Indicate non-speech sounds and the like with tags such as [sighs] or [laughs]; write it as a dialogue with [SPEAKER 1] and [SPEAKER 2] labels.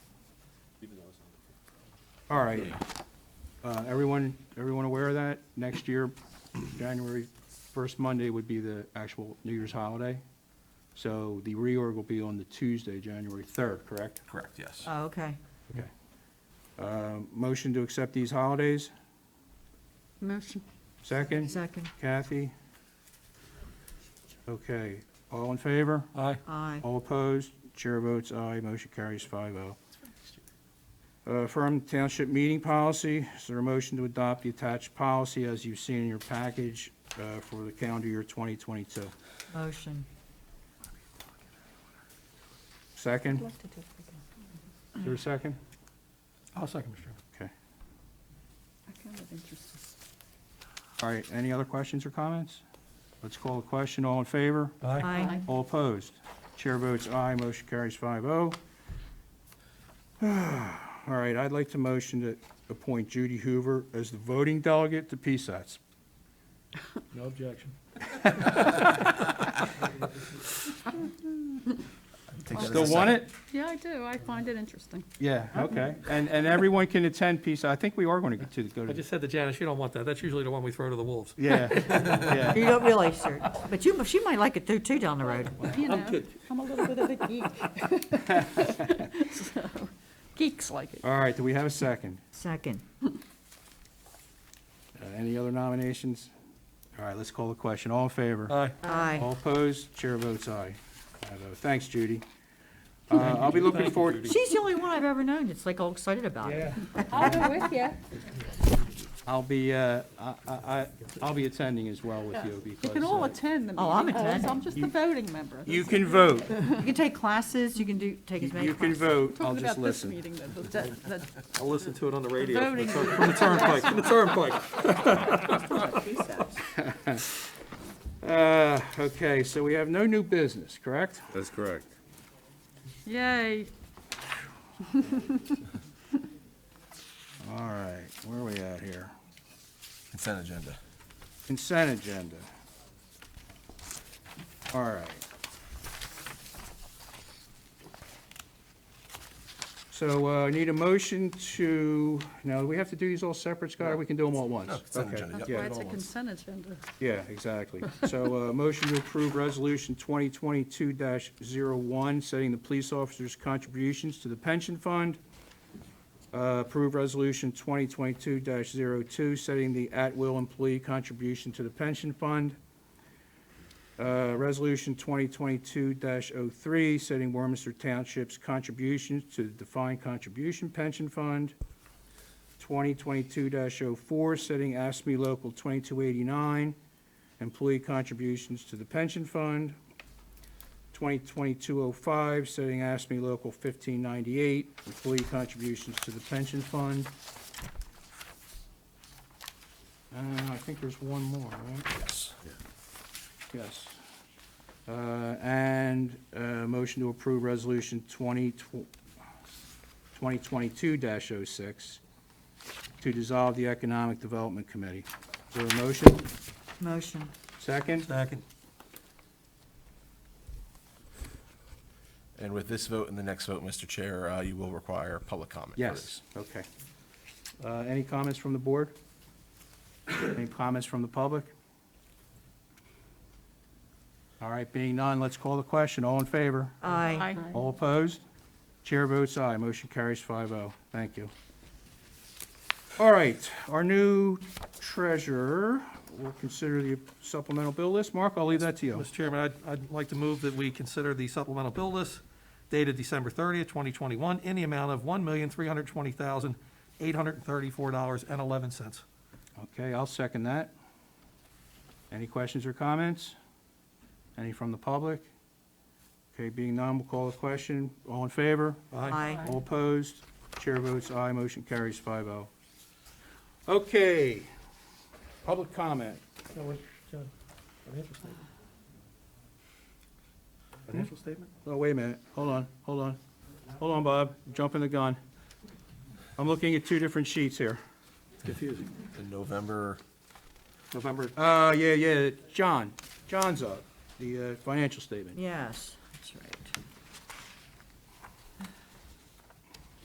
[SPEAKER 1] All right. Uh, Everyone, everyone aware of that? Next year, January 1st Monday would be the actual New Year's holiday. So the reorg will be on the Tuesday, January 3rd, correct?
[SPEAKER 2] Correct, yes.
[SPEAKER 3] Oh, okay.
[SPEAKER 1] Okay. Uh, Motion to accept these holidays?
[SPEAKER 3] Motion.
[SPEAKER 1] Second?
[SPEAKER 3] Second.
[SPEAKER 1] Kathy? Okay, all in favor?
[SPEAKER 2] Aye.
[SPEAKER 3] Aye.
[SPEAKER 1] All opposed? Chair votes aye, motion carries 5-0. Uh, Affirm Township meeting policy, is there a motion to adopt the attached policy as you've seen in your package uh, for the calendar year 2022?
[SPEAKER 3] Motion.
[SPEAKER 1] Second? Is there a second?
[SPEAKER 2] I'll second, Mr. Chairman.
[SPEAKER 1] Okay. All right, any other questions or comments? Let's call the question, all in favor?
[SPEAKER 3] Aye.
[SPEAKER 1] All opposed? Chair votes aye, motion carries 5-0. [sighs] All right, I'd like to motion to appoint Judy Hoover as the voting delegate to PSATs.
[SPEAKER 2] No objection.
[SPEAKER 4] Oh,
[SPEAKER 1] Still want it?
[SPEAKER 5] Yeah, I do. I find it interesting.
[SPEAKER 1] Yeah, okay. And, and everyone can attend PSAT. I think we are going to get to, go
[SPEAKER 4] I
[SPEAKER 1] to.
[SPEAKER 4] just said to Janice, you don't want that. That's usually the one we throw to the wolves.
[SPEAKER 1] Yeah, yeah.
[SPEAKER 3] You don't realize, sir, but you, she might like it too, too, down the road.
[SPEAKER 5] You know,
[SPEAKER 4] I'm good.
[SPEAKER 5] I'm a little bit of a geek. [laughs] So, Geeks like it.
[SPEAKER 1] All right, do we have a second?
[SPEAKER 3] Second.
[SPEAKER 1] Uh, Any other nominations? All right, let's call the question. All in favor?
[SPEAKER 4] Aye.
[SPEAKER 3] Aye.
[SPEAKER 1] All opposed? Chair votes aye. Five oh. Thanks, Judy. Uh, I'll be looking forward,
[SPEAKER 3] She's the only one I've ever known that's like all excited about it.
[SPEAKER 5] I'll go with you.
[SPEAKER 1] I'll be, uh, I, I, I- I'll be attending as well with you
[SPEAKER 5] You
[SPEAKER 1] because.
[SPEAKER 5] can all
[SPEAKER 1] uh,
[SPEAKER 5] attend the meeting.
[SPEAKER 3] Oh, I'm attending.
[SPEAKER 5] I'm just the voting member.
[SPEAKER 1] You can vote.
[SPEAKER 3] You can take classes, you can do, take as many
[SPEAKER 1] You
[SPEAKER 3] classes.
[SPEAKER 1] can vote. I'll
[SPEAKER 5] Talking
[SPEAKER 1] just
[SPEAKER 5] about this
[SPEAKER 1] listen.
[SPEAKER 5] meeting, the- the- the-
[SPEAKER 4] I'll listen to it on the radio. from the
[SPEAKER 5] voting.
[SPEAKER 4] tur- From the turnpike, from the turnpike.
[SPEAKER 1] [laughs] Uh, okay, so we have no new business, correct?
[SPEAKER 6] That's correct.
[SPEAKER 5] Yay.
[SPEAKER 1] All right, where are we at here?
[SPEAKER 2] Consent agenda.
[SPEAKER 1] Consent agenda. All right. So uh, I need a motion to, now, do we have to do these all separate, Scott, or we can do them all at once?
[SPEAKER 2] No, consent
[SPEAKER 1] Okay,
[SPEAKER 2] agenda,
[SPEAKER 5] That's
[SPEAKER 1] yeah.
[SPEAKER 5] why it's a consent agenda.
[SPEAKER 1] Yeah, exactly. So, uh, motion to approve Resolution 2022-01, setting the police officers' contributions to the pension fund. Uh, Approve Resolution 2022-02, setting the at-will employee contribution to the pension fund. Uh, Resolution 2022-03, setting Warminster Township's contributions to the defined contribution pension fund. 2022-04, setting ASME Local 2289, employee contributions to the pension fund. 2022-05, setting ASME Local 1598, employee contributions to the pension fund. Uh, I think there's one more, right?
[SPEAKER 2] Yes.
[SPEAKER 1] Yes. Uh, And uh, motion to approve Resolution 20 tw- 2022-06 to dissolve the Economic Development Committee. Is there a motion?
[SPEAKER 3] Motion.
[SPEAKER 1] Second?
[SPEAKER 4] Second.
[SPEAKER 2] And with this vote and the next vote, Mr. Chair, uh, you will require public comment. for
[SPEAKER 1] Yes,
[SPEAKER 2] this.
[SPEAKER 1] okay. Uh, Any comments from the board? Any comments from the public? All right, being none, let's call the question. All in favor?
[SPEAKER 3] Aye.
[SPEAKER 5] Aye.
[SPEAKER 1] All opposed? Chair votes aye, motion carries 5-0. Thank you. All right, our new treasurer will consider the supplemental bill list. Mark, I'll leave that to you.
[SPEAKER 4] Mr. Chairman, I'd, I'd like to move that we consider the supplemental bill list dated December thirtieth, twenty twenty-one, in the amount of one million, three hundred twenty thousand, eight hundred and thirty-four dollars and eleven cents.
[SPEAKER 1] Okay, I'll second that. Any questions or comments? Any from the public? Okay, being none, we'll call the question. All in favor?
[SPEAKER 3] Aye.
[SPEAKER 1] All opposed? Chair votes aye, motion carries 5-0. Okay, public comment.
[SPEAKER 4] Financial statement?
[SPEAKER 1] Oh, wait a minute, hold on, hold on. Hold on, Bob, jumping the gun. I'm looking at two different sheets here.
[SPEAKER 4] Confusing.
[SPEAKER 2] The November,
[SPEAKER 4] November,
[SPEAKER 1] Uh, yeah, yeah, John, John's up, the uh, financial statement.
[SPEAKER 3] Yes.